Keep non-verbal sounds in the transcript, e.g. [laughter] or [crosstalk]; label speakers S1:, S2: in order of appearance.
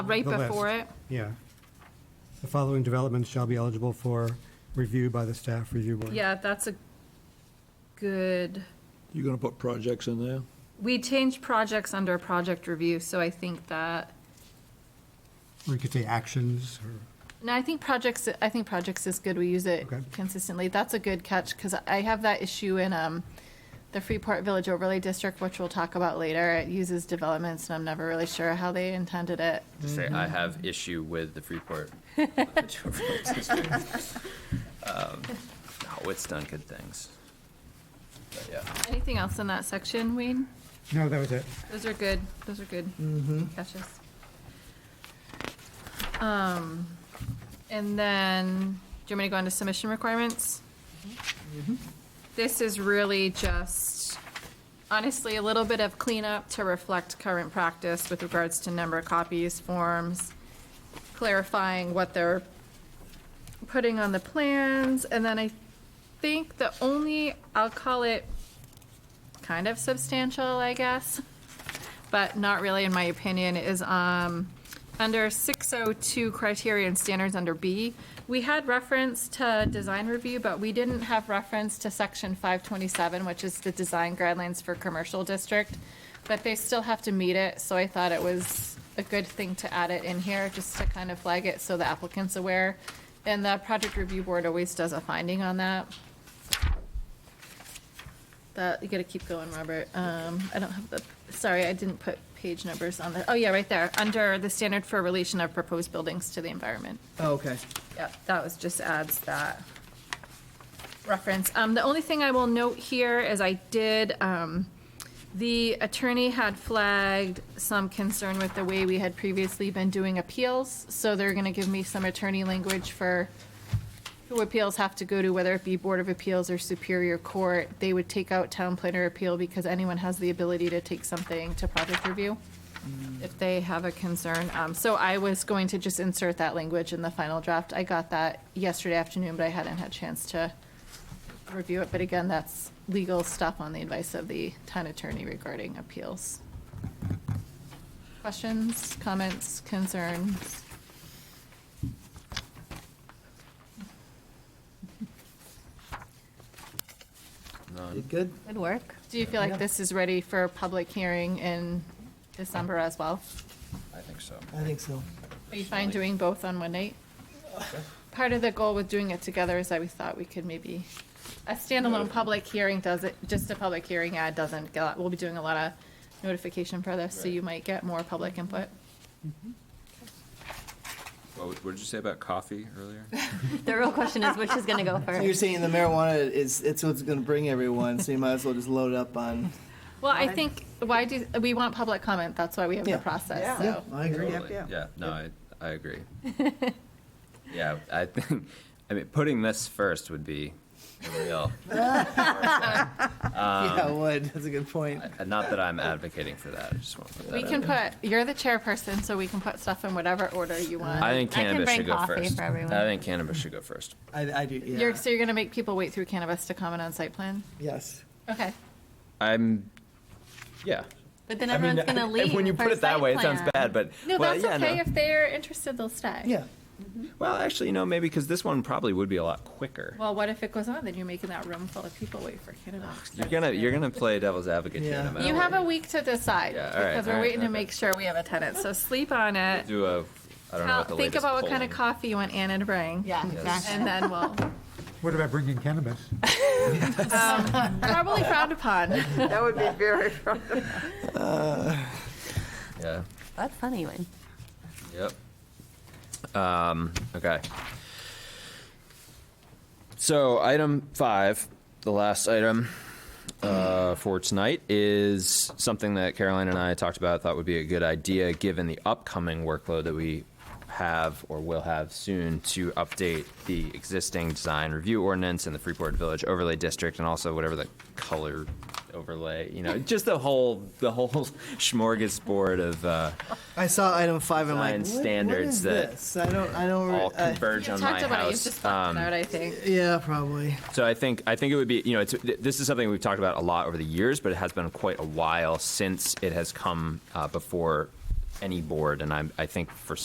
S1: right
S2: The list.
S1: before it.
S2: Yeah. The following developments shall be eligible for review by the staff review board.
S1: Yeah, that's a good,
S3: You gonna put projects in there?
S1: we changed projects under project review, so I think that,
S2: Or you could say actions or,
S1: no, I think projects, I think projects is good. We use it
S2: Okay.
S1: consistently. That's a good catch, because I have that issue in, um, the Freeport Village Overlay District, which we'll talk about later. It uses developments, and I'm never really sure how they intended it.
S4: to say I have issue with the Freeport. No, Um, it's done good things. But yeah,
S1: Anything else in that section, Wayne?
S2: no, that was it.
S1: Those are good, those are good catches. Um, and then, do you want me to go into submission requirements? This is really just, honestly, a little bit of cleanup to reflect current practice with regards to number of copies, forms, clarifying what they're putting on the plans, and then I think the only, I'll call it kind of substantial, I guess, but not really, in my opinion, is um, under 602 criteria and standards under B. We had reference to design review, but we didn't have reference to section 527, which is the design guidelines for commercial district, but they still have to meet it, so I thought it was a good thing to add it in here, just to kind of flag it so the applicant's aware. And the project review board always does a finding on that. That, you gotta keep going, Robert. Um, I don't have the, sorry, I didn't put page numbers on the, oh yeah, right there, under the standard for relation of proposed buildings to the environment.
S5: Oh, okay.
S1: Yep, that was, just adds that reference. Um, the only thing I will note here is I did, um, the attorney had flagged some concern with the way we had previously been doing appeals, so they're gonna give me some attorney language for who appeals have to go to, whether it be Board of Appeals or Superior Court. They would take out town planner appeal because anyone has the ability to take something to project review if they have a concern. Um, so I was going to just insert that language in the final draft. I got that yesterday afternoon, but I hadn't had a chance to review it. But again, that's legal stuff on the advice of the town attorney regarding appeals. Questions, comments, concerns?
S4: none.
S5: Did good?
S1: Good work. Do you feel like
S5: Yeah.
S1: this is ready for a public hearing in December as well?
S4: I think so.
S5: I think so.
S1: Are you fine doing both on one night? Part of the goal with doing it together is that we thought we could maybe, a standalone public hearing does it, just a public hearing ad doesn't, get- we'll be doing a lot of notification for this, so you might get more public input.
S4: What, would- what did you say about coffee earlier?
S6: The real question is which is going
S1: [laughs]
S6: to go
S5: So you're
S6: first?
S5: saying the marijuana is, it's what's gonna bring everyone, so you might as well just load up on.
S1: Well, I think, why do, we want public comment, that's why we have the
S5: Yeah.
S1: process,
S5: Yeah,
S1: so.
S5: I agree.
S4: Totally. Yeah, no, I, I agree. Yeah, I think, I mean, putting this first would be a real,
S5: Yeah,
S4: Um,
S5: I would, that's a good point.
S4: and uh, not that I'm advocating for that, I just want to put that
S1: We
S4: out
S1: can
S4: there.
S1: put, you're the chairperson, so we can put stuff in whatever order you want.
S4: I think
S6: I can
S4: cannabis
S6: bring
S4: should go
S6: coffee
S4: first.
S6: for everyone.
S4: I think cannabis should go first.
S5: I, I do, yeah,
S1: You're, so you're gonna make people wait through cannabis to comment on site plan?
S5: yes.
S1: Okay.
S4: I'm, yeah.
S6: But then
S4: I mean,
S6: everyone's
S4: [laughs]
S6: going to leave.
S4: When you put
S6: for
S4: it that
S6: site
S4: way, it sounds
S6: plan.
S4: bad, but.
S1: No,
S4: well,
S1: that's
S4: yeah,
S1: okay.
S4: no.
S1: If they're interested, they'll stay.
S5: Yeah,
S4: Well, actually, you know, maybe because this one probably would be a lot quicker.
S1: Well, what if it goes on? Then you're making that room full of people wait for cannabis.
S4: You're gonna, you're gonna play devil's advocate here.
S5: Yeah.
S4: no matter
S1: You
S4: what.
S1: have a week to decide
S4: Yeah, all right,
S1: because we're
S4: all right,
S1: waiting to
S4: okay.
S1: make sure we have a tenant. So sleep on it.
S4: Do a, I don't know
S1: Now,
S4: what the
S1: Think
S4: latest
S1: about what kind of
S4: polling-
S1: coffee you want Anna to bring.
S6: Yeah, exactly.
S1: And then we'll
S2: What about bringing cannabis?
S1: probably frowned
S4: [laughs]
S1: upon.
S7: That would be very
S4: Yeah,
S6: That's funny, Wayne.
S4: yep. Um, okay. So item five, the last item, uh, for tonight is something that Caroline and I talked about, thought would be a good idea, given the upcoming workload that we have or will have soon to update the existing design review ordinance and the Freeport Village overlay district and also whatever the color overlay, you know, just the whole, the whole [laughs] smorgasbord of, uh,
S5: I saw item five, I'm like,
S4: Design
S5: what, what
S4: standards
S5: is
S4: that
S5: this? I don't, I don't,
S4: all
S5: re- I-
S1: Uh, You
S4: converge on my
S1: talked about it. You
S4: house. Um,
S1: just talked about it, I think.
S5: yeah, probably.
S4: So I think I think it would be you know it's, th- this is something we've talked about a lot over the years, but it has been quite a while since it has come uh, before any board, and I, I think for